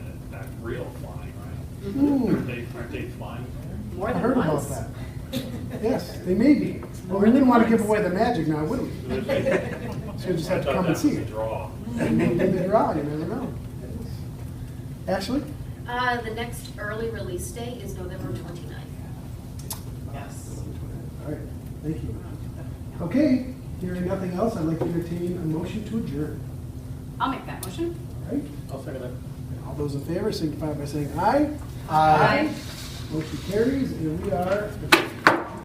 Ooh, Hmm. Aren't they, aren't they flying there? More I than heard about once. that. Yes, they may be. Well, we wouldn't want to give away the magic now, would we? There's a- So we just have to I thought come and that see was a it. Mm-hmm. draw. And then give it a draw, you never know. Ashley? Uh, the next early release day is November twenty-ninth. Yes. All right, thank you. Okay, hearing nothing else, I'd like to entertain a motion to adjourn. I'll make that motion. All right, I'll second that. and all those in favor signify by saying aye. Aye. Motion carries, and we are adjourned.